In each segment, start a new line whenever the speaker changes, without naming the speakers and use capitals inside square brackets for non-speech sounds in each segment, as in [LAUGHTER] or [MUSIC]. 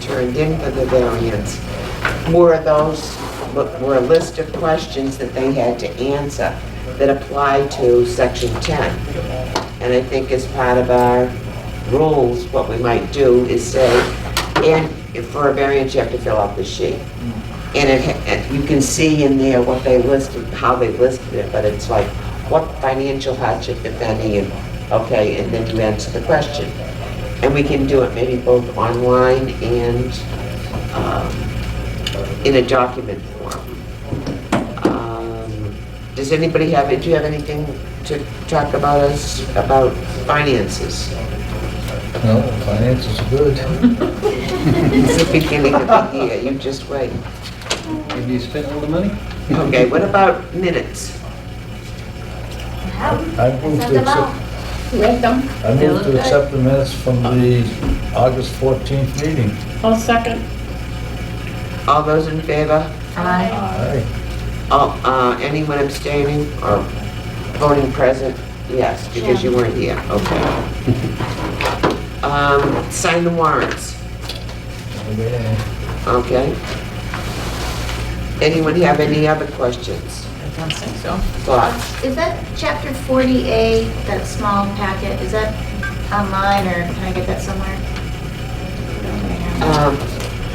turned in for the variance. More of those were a list of questions that they had to answer that apply to section 10. And I think as part of our rules, what we might do is say, and if for a variance, you have to fill out the sheet. And it, ha- and you can see in there what they listed, how they listed it, but it's like, what financial hardship, if any, and, okay, and then you answer the question. And we can do it maybe both online and, um, in a document form. Um, Does anybody have, do you have anything to talk about us, about finances?
No, finances are good.
It's the beginning of the year, you just wait.
Have you spent all the money?
Okay, what about minutes?
I moved to accept,
Read them.
I moved to accept the minutes from the August 14th meeting.
I'll second.
All those in favor?
Aye.
Aye.
All- uh, Anyone abstaining or voting present? Yes, because you weren't here, okay. Um, Sign the warrants,
Okay.
okay? Anyone have any other questions,
I don't think so.
thoughts?
Is that chapter 40A, that small packet, is that online or can I get that somewhere?
Um,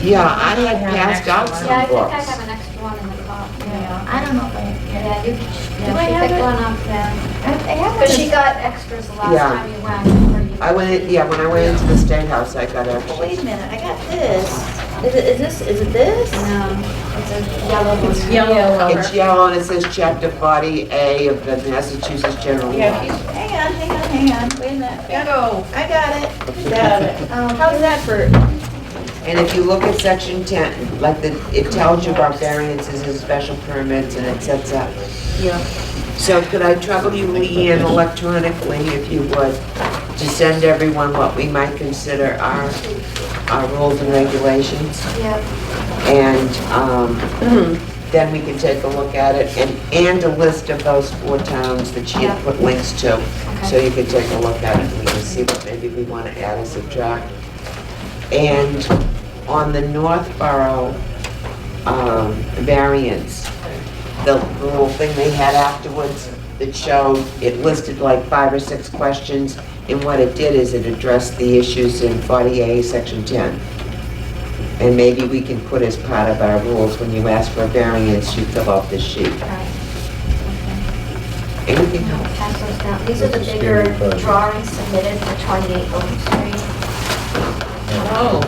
Yeah, I
I
had
have an
passed
extra
out
one.
some
Yeah, I think I
books.
have an extra one in the car.
Yeah, I don't know if I, yeah.
Yeah, you,
Yeah,
do I
she
have
picked
it?
one I I have
But she
it.
got extras the last
Yeah.
time you went. or you-
I went, in- yeah, when I went into the State House, I got
But
extra.
Wait a minute, I got this. Is it, is this, is it this?
No, it's a yellow one.
It's yellow
It's
cover.
yellow and it says Chapter 40A of the Massachusetts General
Yeah,
Law.
she's-
Hang on, hang on, hang on, wait a minute.
Go.
I got it. Got it. [LAUGHS]
Um,
How's that for?
And if you look at section 10, like the, it tells you about variances and special permits and et cetera.
Yeah.
So could I trouble you, Leanne, electronically, if you would, to send everyone what we might consider our, our rules and regulations?
Yeah.
And um, then we can take a look at it, and, and a list of those four towns that she
Yeah.
had put links to. So
Okay.
you can take a look at it, and we can see what maybe we want to add or subtract. And on the Northborough um, variance, the the little thing they had afterwards that showed, it listed like five or six questions, and what it did is it addressed the issues in 40A, Section 10. And maybe we can put as part of our rules, when you ask for a variance, you fill out this sheet.
Right.
Anything
No,
else?
pass those down. These are the
That's a scary
bigger
project.
drawings submitted for 28 Oak Street.
Oh,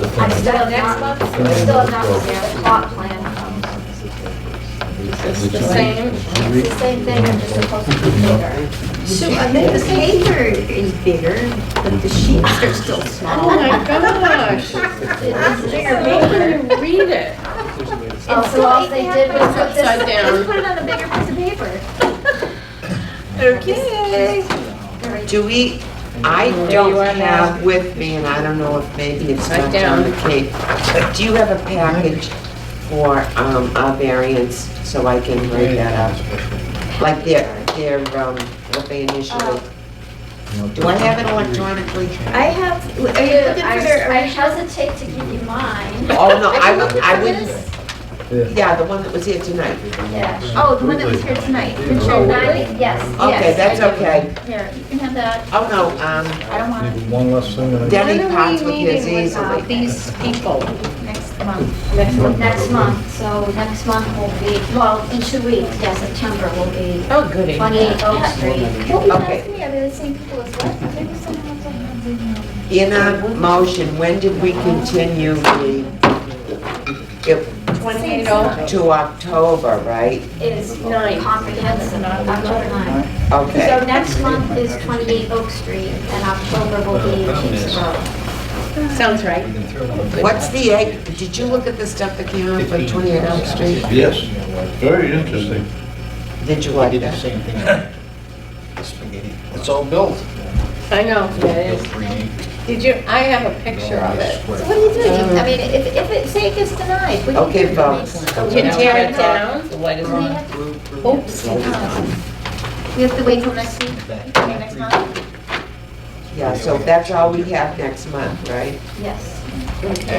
The thing
I
is-
still have
next
not,
month?
I still have not seen the plot plan.
it's the same.
It's the same thing, I'm just supposed to be bigger.
So I think the paper is bigger, but the sheets are still
Oh,
[LAUGHS] small.
my
It's
gosh.
bigger
How can you read it?
Oh, so all they did was put this,
Upside down.
just put it on a bigger piece of paper.
Okay.
Do we, I
There
don't
you are now.
have with me, and I don't know if maybe it's
Right
not down
down.
the Cape, but do you have a package for um, our variance, so I can write that up? Like their, their, um, what they initially, do I have it electronically?
I have, are you looking
I
for their
I
original?
hesitate to give you mine.
Oh, no, I
can
would,
look
I
for
would,
this.
Yeah.
yeah, the one that was here tonight.
Yeah.
Oh, the one that was here tonight.
Picture
Oh,
nine, yes,
Okay,
yes.
that's
I do.
okay.
Here, you can have that.
Oh, no, um,
I don't want it
Maybe One less thing. than I-
Dennis.
When are
Pots
we
with
meeting
his
with
easily.
uh, these people?
next month.
Next month?
Next month, so next month will be, well, in two weeks, yeah, September will be
Oh, goody.
28 Oak Street.
Well, be
Okay.
nice to me, I mean, the same people as last, maybe someone else will have the
in our motion, when did we continue the, it-
Twenty-eight oh.
to October, right?
It is
Nine.
comprehensive, October 9.
Okay.
So next month is 28 Oak Street, and October will be Chiefs Road.
Sounds right.
What's the, egg- did you look at the stuff that came out for 28 Elm Street?
Yes, very interesting.
Did you
I
like
did the
that?
same
[LAUGHS]
thing with the spaghetti. It's all built.
I know, that is.
Three acres.
Did you, I have a picture of it.
Square.
So what do you do? You- I mean, if, if it, say it gets denied, what do you do?
Okay, folks.
You tear it down? The light is
We
on.
have to-
Oops.
We have to wait till next week, I mean, next month?
Yeah, so that's all we have next month, right?
Yes.
Okay.